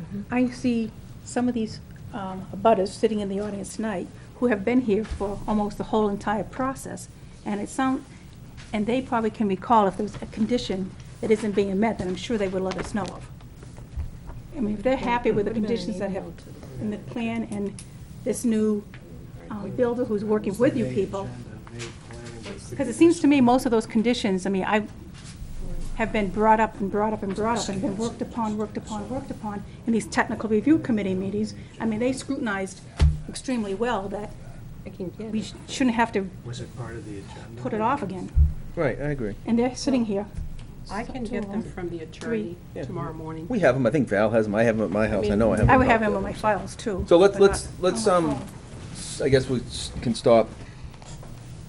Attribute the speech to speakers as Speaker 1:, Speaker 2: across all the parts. Speaker 1: Mm-hmm. I see some of these um, abutters sitting in the audience tonight who have been here for almost the whole entire process, and it sound, and they probably can recall if there's a condition that isn't being met, then I'm sure they would let us know of. I mean, if they're happy with the
Speaker 2: Put it in an
Speaker 1: conditions that have
Speaker 2: email to them.
Speaker 1: in the plan and this new um, builder who's working with you people, because it seems to me most of those conditions, I mean, I have been brought up and brought up and brought up and been worked upon, worked upon, worked upon in these technical review committee meetings. I mean, they scrutinized extremely well that
Speaker 2: I can get
Speaker 1: we
Speaker 2: it.
Speaker 1: sh- shouldn't have to
Speaker 3: Was it part of the agenda?
Speaker 1: put it off again.
Speaker 4: Right, I agree.
Speaker 1: And they're sitting here.
Speaker 5: I can get them from the attorney
Speaker 4: Yeah.
Speaker 5: tomorrow morning.
Speaker 4: We have them, I think Val has them, I have them at my house, I know I have them.
Speaker 1: I would have them on my files too.
Speaker 4: So let's,
Speaker 1: but not
Speaker 4: let's,
Speaker 1: on
Speaker 4: let's,
Speaker 1: my
Speaker 4: um,
Speaker 1: phone.
Speaker 4: s- I guess we s- can stop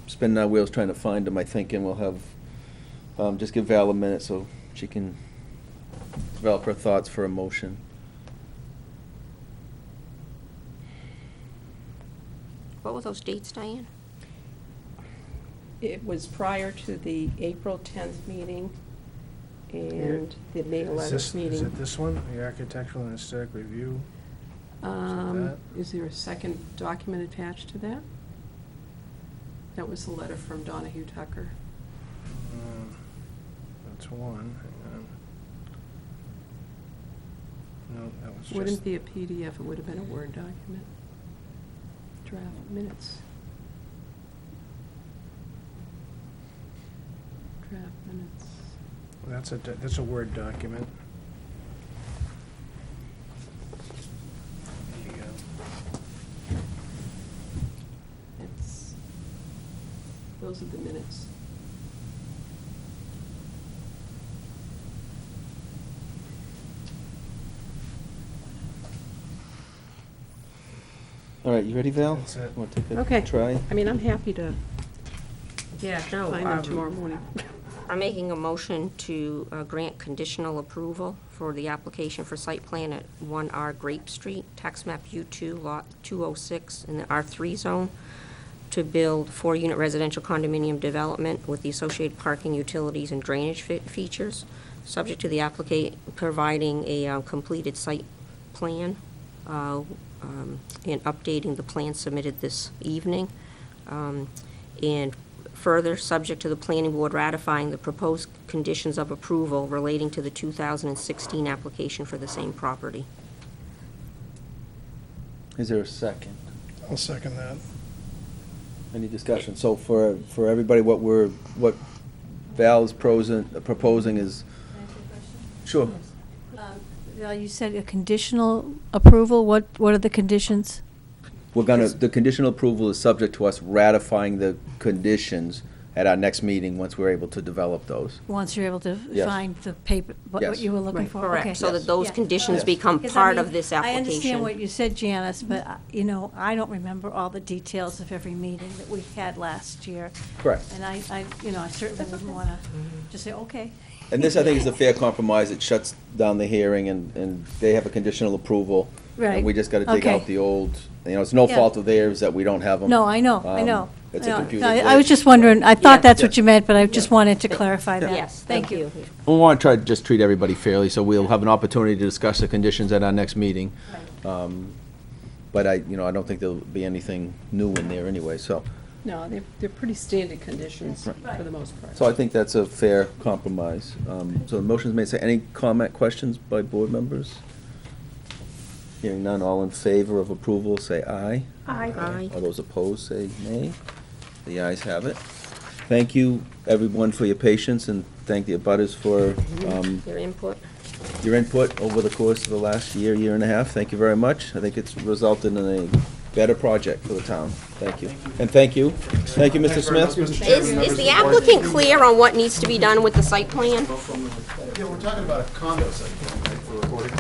Speaker 4: spinning our wheels trying to find them, I think, and we'll have, um, just give Val a minute so she can develop her thoughts for a motion.
Speaker 6: What were those dates, Diane?
Speaker 5: It was prior to the April 10th meeting and the May
Speaker 3: Is this-
Speaker 5: 11th meeting.
Speaker 3: Is it this one, the architectural and aesthetic review?
Speaker 5: Um,
Speaker 3: that?
Speaker 5: Is there a second document attached to that? That was the letter from Donahue Tucker.
Speaker 3: Um, That's one. hang on. No, that was just.
Speaker 5: Wouldn't be a PDF, it would have been a Word document. Draft minutes. Draft minutes.
Speaker 3: That's a, do- that's a Word document. There you go.
Speaker 5: It's, those are the minutes.
Speaker 4: All right, you ready, Val?
Speaker 3: That's it.
Speaker 4: Want to take a
Speaker 5: Okay.
Speaker 4: Try?
Speaker 5: I mean, I'm happy to
Speaker 6: Yeah, no.
Speaker 5: find
Speaker 6: um,
Speaker 5: them tomorrow morning.
Speaker 6: I'm making a motion to uh, grant conditional approval for the application for site plan at 1R Grape Street, tax map U2, lot 206, in the R3 zone, to build four-unit residential condominium development with the associated parking, utilities, and drainage fe- features, subject to the applicant providing a uh, completed site plan uh, um, and updating the plan submitted this evening. Um, And further, subject to the planning board ratifying the proposed conditions of approval relating to the 2016 application for the same property.
Speaker 4: Is there a second?
Speaker 3: I'll second that.
Speaker 4: Any discussion? So for, for everybody, what we're, what Val is prosin- proposing is,
Speaker 7: Can I ask you a question?
Speaker 4: sure.
Speaker 7: Um, Val, you said a conditional approval, what, what are the conditions?
Speaker 4: We're gonna, the conditional approval is subject to us ratifying the conditions at our next meeting, once we're able to develop those.
Speaker 7: Once you're able to
Speaker 4: Yes.
Speaker 7: find the paper, what what
Speaker 4: Yes.
Speaker 7: you were looking
Speaker 5: Right.
Speaker 7: for? Okay.
Speaker 6: Correct, so that those
Speaker 7: Yeah.
Speaker 6: conditions
Speaker 4: Yes.
Speaker 6: become
Speaker 7: Because I
Speaker 6: part of
Speaker 7: mean,
Speaker 6: this
Speaker 7: I understand what
Speaker 6: application.
Speaker 7: you said, Janice, but, uh, you know, I don't remember all the details of every meeting that we had last year.
Speaker 4: Correct.
Speaker 7: And I, I, you know, I certainly wouldn't want to just say, okay.
Speaker 4: And this, I think, is a fair compromise. It shuts down the hearing and, and they have a conditional approval.
Speaker 7: Right.
Speaker 4: And we just gotta dig
Speaker 7: Okay.
Speaker 4: out the old, you know, it's no
Speaker 7: Yeah.
Speaker 4: fault of theirs that we don't have them.
Speaker 7: No, I know, I know.
Speaker 4: um, It's
Speaker 7: I
Speaker 4: a
Speaker 7: know.
Speaker 4: computer.
Speaker 7: I- I was
Speaker 4: glitch.
Speaker 7: just wondering, I thought
Speaker 6: Yeah.
Speaker 7: that's what
Speaker 4: Yes.
Speaker 7: you meant, but I just wanted to clarify that.
Speaker 6: Yes, thank you.
Speaker 4: We want to try to just treat everybody fairly, so we'll have an opportunity to discuss the conditions at our next meeting. Um, But I, you know, I don't think there'll be anything new in there anyway, so,
Speaker 5: No, they're, they're pretty standard conditions
Speaker 4: Right.
Speaker 5: for the most part.
Speaker 4: so I think that's a fair compromise. Um, So the motion's made, so any comment, questions by board members? Hearing none, all in favor of approval, say aye.
Speaker 1: I,
Speaker 6: Aye.
Speaker 4: All those opposed, say nay. The ayes have it. Thank you, everyone, for your patience, and thank the abutters for um,
Speaker 6: Your input.
Speaker 4: your input over the course of the last year, year and a half. Thank you very much. I think it's resulted in a better project for the town. Thank you. And thank you. Thank you, Mr. Smith.
Speaker 6: Is, is the applicant clear on what needs to be done with the site plan?
Speaker 8: Yeah, we're talking about a condo site, right, for recording?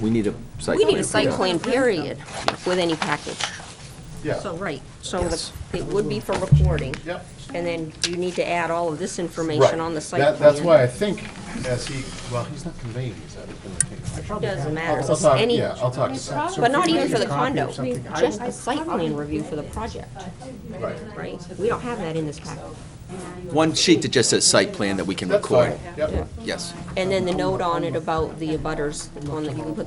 Speaker 4: We need a site.
Speaker 6: We need
Speaker 4: plan.
Speaker 6: a site plan, period, with any package.
Speaker 8: Yeah.
Speaker 6: So, right, so the- it would be for recording.
Speaker 8: Yep.
Speaker 6: And then you need to add all of this information on the site plan.
Speaker 8: That- That's why I think, as he, well, he's not conveying, he's not gonna take.
Speaker 6: Doesn't matter,
Speaker 8: I'll- I'll
Speaker 6: it's
Speaker 8: talk-
Speaker 6: any,
Speaker 8: Yeah, I'll talk to Sal.
Speaker 6: but not even for the condo, just the site plan review for the project,
Speaker 8: Right.
Speaker 6: right? We don't have that in this package.
Speaker 4: One sheet that just says site plan that we can
Speaker 8: That's
Speaker 4: record.
Speaker 8: fine, yep.
Speaker 4: Yes.
Speaker 6: And then the note on it about the abutters, the one that you can put